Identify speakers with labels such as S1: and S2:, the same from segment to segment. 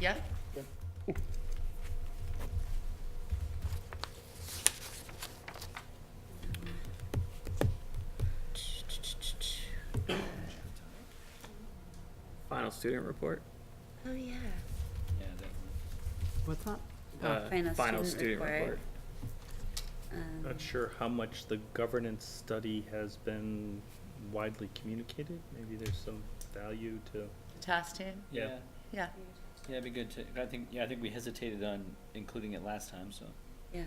S1: Yeah?
S2: Final student report.
S1: Oh, yeah.
S3: Yeah, that,
S4: What's that?
S2: Uh,
S1: Oh, final student report. Um,
S5: Not sure how much the governance study has been widely communicated. Maybe there's some value to.
S1: Task team?
S5: Yeah.
S3: yeah,
S1: Yeah,
S3: yeah, it'd be good to, I think, yeah, I think we hesitated on including it last time, so
S1: yeah.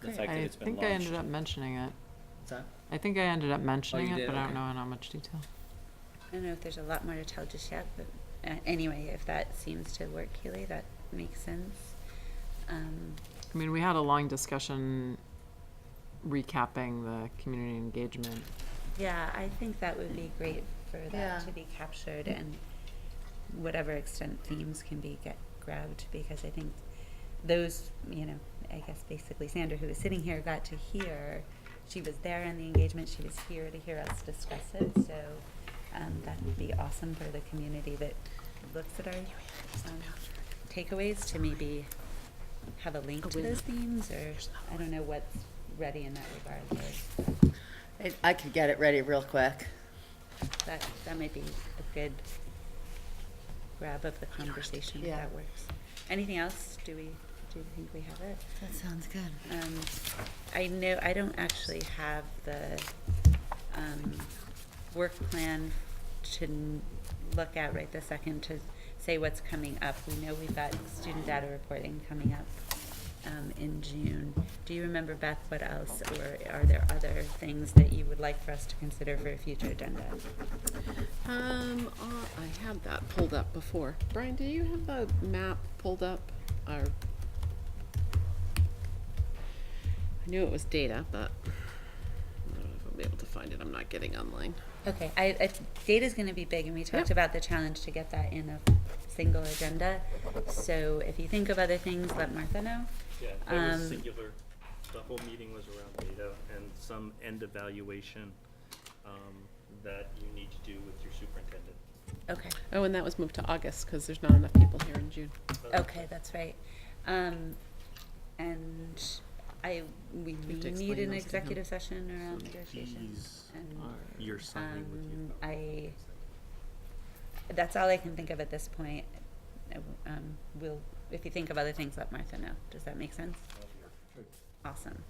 S3: the
S1: Great.
S3: fact that
S4: I
S3: it's been
S4: think
S3: launched.
S4: I ended up mentioning it.
S3: What's that? Oh,
S4: I think I ended up mentioning
S3: you
S4: it,
S3: did,
S4: but I
S3: okay.
S4: don't know in how much detail.
S1: I don't know if there's a lot more to tell just yet, but uh, anyway, if that seems to work, Keely, that makes sense. Um,
S4: I mean, we had a long discussion recapping the community engagement.
S1: yeah, I think that would be great for
S6: Yeah.
S1: that to be captured and whatever extent themes can be get grabbed because I think those, you know, I guess basically Sandra, who was sitting here, got to hear. She was there in the engagement. She was here to hear us discuss it. So um, that would be awesome for the community that looks at our um, takeaways to maybe have a link to those themes, or I don't know what's ready in that regard. But
S6: I- I could get it ready real quick.
S1: that that might be a good grab of the conversation if
S6: Yeah.
S1: that works. Anything else? Do we do you think we have it?
S6: That sounds good.
S1: Um, I know, I don't actually have the, um, work plan to n- look at right this second to say what's coming up. We know we've got student data reporting coming up, um, in June. Do you remember, Beth, what else, or are there other things that you would like for us to consider for a future agenda?
S7: Um, uh, I had that pulled up before. Brian, do you have the map pulled up? Or I knew it was data, but I don't know if I'll be able to find it. I'm not getting online.
S1: Okay, I, I, data's gonna be big, and we talked
S7: Yep.
S1: about the challenge to get that in a single agenda. So if you think of other things, let Martha know.
S5: Yeah, that
S1: Um,
S5: was singular. The whole meeting was around data and some end evaluation um, that you need to do with your superintendent.
S1: Okay.
S7: Oh, and that was moved to August because there's not enough people here in June.
S1: Okay, that's right. Um, and I, we
S7: have to
S1: need
S7: explain
S1: an
S7: those to him.
S1: executive session around negotiations.
S5: These
S1: And,
S5: are your signing with
S1: um,
S5: you.
S1: I, that's all I can think of at this point. I w- Um, we'll, if you think of other things, let Martha know. Does that make sense? Awesome.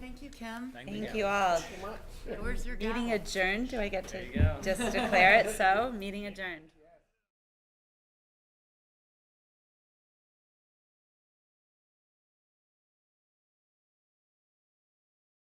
S6: Thank you, Kim.
S1: Thank you all.
S6: Where's your gavel?
S1: Meeting adjourned. Do I get to
S3: you go.
S1: just declare it so? Meeting adjourned.